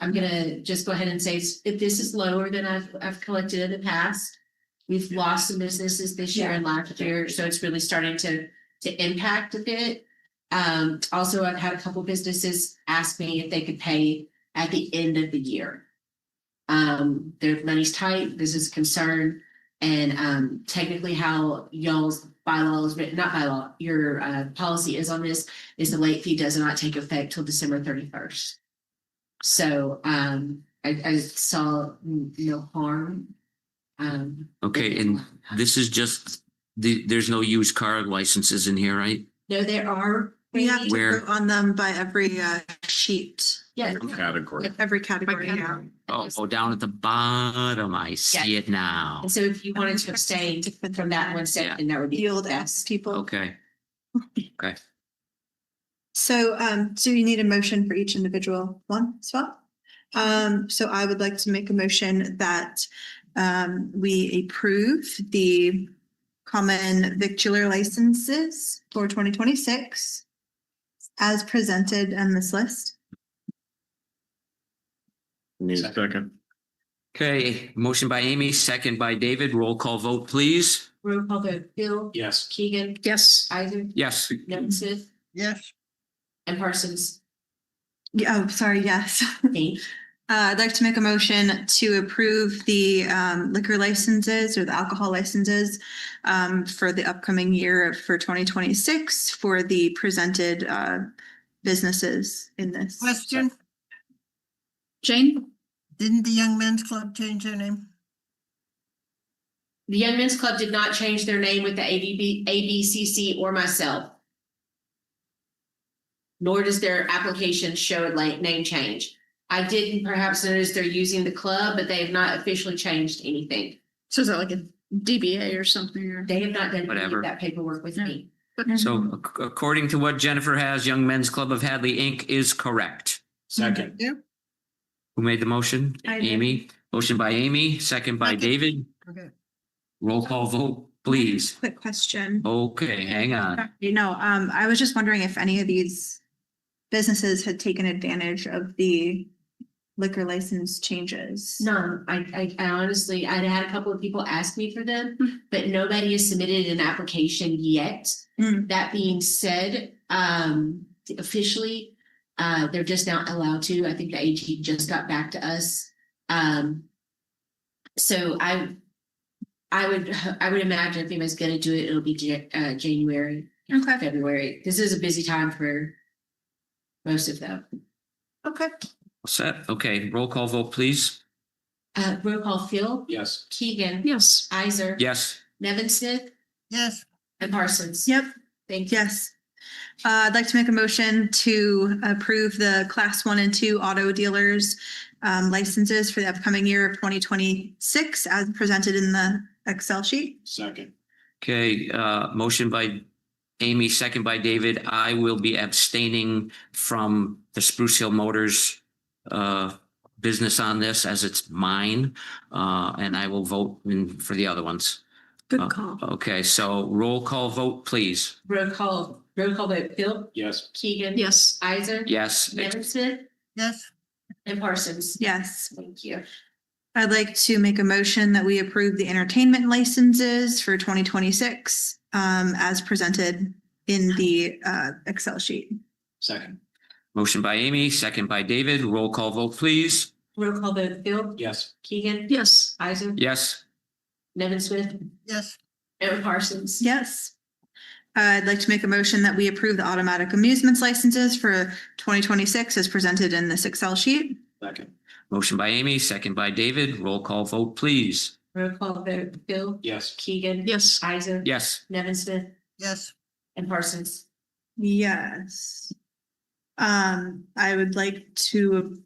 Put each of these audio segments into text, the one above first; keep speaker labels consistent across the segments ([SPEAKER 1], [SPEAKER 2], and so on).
[SPEAKER 1] I'm gonna just go ahead and say, it's- if this is lower than I've, I've collected in the past. We've lost some businesses this year and last year, so it's really starting to, to impact a bit. Um, also, I've had a couple businesses ask me if they could pay at the end of the year. Um, their money's tight, this is a concern, and, um, technically how y'all's bylaws, written- not bylaw, your, uh, policy is on this. Is the late fee does not take effect till December thirty-first. So, um, I, I saw n- no harm. Um.
[SPEAKER 2] Okay, and this is just, the, there's no used car licenses in here, right?
[SPEAKER 1] No, there are.
[SPEAKER 3] We have to
[SPEAKER 1] maybe-
[SPEAKER 2] Where-
[SPEAKER 3] vote on them by every uh, sheet,
[SPEAKER 1] Yeah.
[SPEAKER 4] Category.
[SPEAKER 3] every category. yeah.
[SPEAKER 2] Oh, oh, down at the bottom, I see it now.
[SPEAKER 1] And so if you wanted to abstain from that one section, that would be.
[SPEAKER 3] The old S people.
[SPEAKER 2] Okay,
[SPEAKER 3] So um, so you need a motion for each individual one as well. Um, so I would like to make a motion that um, we approve the common victular licenses for twenty twenty-six as presented on this list.
[SPEAKER 4] Need a second.
[SPEAKER 2] okay, motion by Amy, second by David, roll call vote, please.
[SPEAKER 1] Roll call vote, Bill,
[SPEAKER 4] Yes.
[SPEAKER 1] Keegan,
[SPEAKER 5] Yes.
[SPEAKER 1] Isaac,
[SPEAKER 2] Yes,
[SPEAKER 1] Nevin Smith,
[SPEAKER 5] Yes.
[SPEAKER 1] and Parsons.
[SPEAKER 3] Yeah, oh, sorry, yes.
[SPEAKER 1] Thank
[SPEAKER 3] Uh, I'd like to make a motion to approve the um, liquor licenses or the alcohol licenses um, for the upcoming year for 2026 for the presented uh, businesses in this.
[SPEAKER 5] Question,
[SPEAKER 1] Jane?
[SPEAKER 5] didn't the Young Men's Club change their name?
[SPEAKER 1] The Young Men's Club did not change their name with the ABB, ABCC or myself. Nor does their application show a la- name change. I didn't perhaps notice they're using the club, but they have not officially changed anything.
[SPEAKER 6] So is that like a DBA or something or?
[SPEAKER 1] They have not done any
[SPEAKER 2] Whatever.
[SPEAKER 1] of that paperwork with me.
[SPEAKER 2] so ac- according to what Jennifer has, Young Men's Club of Hadley Inc. is correct.
[SPEAKER 4] Second.
[SPEAKER 2] Who made the motion?
[SPEAKER 3] I did.
[SPEAKER 2] Amy, motion by Amy, second by
[SPEAKER 3] Second.
[SPEAKER 2] David,
[SPEAKER 5] Okay.
[SPEAKER 2] roll call vote, please.
[SPEAKER 3] Quick question.
[SPEAKER 2] Okay, hang on.
[SPEAKER 3] You know, um, I was just wondering if any of these businesses had taken advantage of the liquor license changes.
[SPEAKER 1] No, I, I I honestly, I'd had a couple of people ask me for them, but nobody has submitted an application yet.
[SPEAKER 3] Mm.
[SPEAKER 1] That being said, um, officially, uh, they're just not allowed to. I think the AG just got back to us. Um, so I, I would, I would imagine if anybody's gonna do it, it'll be Ja- uh, January,
[SPEAKER 3] Okay,
[SPEAKER 1] February. This is a busy time for most of them.
[SPEAKER 3] okay.
[SPEAKER 2] Set, okay, roll call vote, please.
[SPEAKER 1] Uh, roll call Phil,
[SPEAKER 4] Yes.
[SPEAKER 1] Keegan,
[SPEAKER 6] Yes.
[SPEAKER 1] Isaac.
[SPEAKER 2] Yes.
[SPEAKER 1] Nevin Smith
[SPEAKER 5] Yes,
[SPEAKER 1] and Parsons.
[SPEAKER 3] Yep.
[SPEAKER 1] Thank you.
[SPEAKER 3] Yes. Uh, I'd like to make a motion to approve the class one and two auto dealers um, licenses for the upcoming year of twenty twenty-six as presented in the Excel sheet.
[SPEAKER 4] Second.
[SPEAKER 2] Okay, uh, motion by Amy, second by David. I will be abstaining from the Spruce Hill Motors uh, business on this as it's mine, uh, and I will vote in for the other ones.
[SPEAKER 6] Good call.
[SPEAKER 2] Okay, so roll call vote, please.
[SPEAKER 1] Roll call, roll call vote, Phil,
[SPEAKER 4] Yes.
[SPEAKER 1] Keegan.
[SPEAKER 6] Yes.
[SPEAKER 1] Isaac.
[SPEAKER 2] Yes,
[SPEAKER 1] Nevin Smith
[SPEAKER 5] yes,
[SPEAKER 1] and Parsons.
[SPEAKER 3] Yes.
[SPEAKER 1] Thank you.
[SPEAKER 3] I'd like to make a motion that we approve the entertainment licenses for twenty twenty-six um, as presented in the uh, Excel sheet.
[SPEAKER 4] Second.
[SPEAKER 2] motion by Amy, second by David. Roll call vote, please.
[SPEAKER 1] Roll call vote, Phil,
[SPEAKER 4] Yes.
[SPEAKER 1] Keegan.
[SPEAKER 6] Yes.
[SPEAKER 1] Isaac.
[SPEAKER 2] Yes,
[SPEAKER 1] Nevin Smith
[SPEAKER 5] yes,
[SPEAKER 1] and Parsons.
[SPEAKER 3] Yes. Uh, I'd like to make a motion that we approve the automatic amusements licenses for twenty twenty-six as presented in this Excel sheet.
[SPEAKER 4] Second.
[SPEAKER 2] motion by Amy, second by David. Roll call vote, please.
[SPEAKER 1] Roll call vote, Phil,
[SPEAKER 4] Yes.
[SPEAKER 1] Keegan.
[SPEAKER 6] Yes.
[SPEAKER 1] Isaac.
[SPEAKER 2] Yes,
[SPEAKER 1] Nevin Smith
[SPEAKER 5] yes.
[SPEAKER 1] and Parsons.
[SPEAKER 3] Yes. Um, I would like to,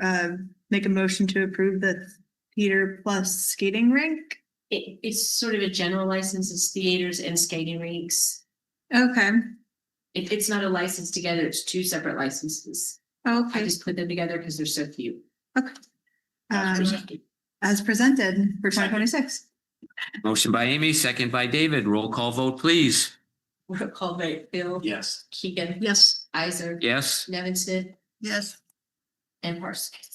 [SPEAKER 3] uh, make a motion to approve the theater plus skating rink.
[SPEAKER 1] It, it's sort of a general license, it's theaters and skating rinks.
[SPEAKER 3] Okay,
[SPEAKER 1] It, it's not a license together, it's two separate licenses. I
[SPEAKER 3] okay,
[SPEAKER 1] just put them together because they're so few.
[SPEAKER 4] As
[SPEAKER 3] um,
[SPEAKER 4] presented.
[SPEAKER 3] as presented for twenty
[SPEAKER 4] Second.
[SPEAKER 3] twenty-six.
[SPEAKER 2] motion by Amy, second by David. Roll call vote, please.
[SPEAKER 1] Roll call vote, Phil,
[SPEAKER 4] Yes.
[SPEAKER 1] Keegan,
[SPEAKER 6] Yes.
[SPEAKER 1] Isaac.
[SPEAKER 2] Yes.
[SPEAKER 1] Nevin Smith
[SPEAKER 5] Yes.
[SPEAKER 1] and Parsons.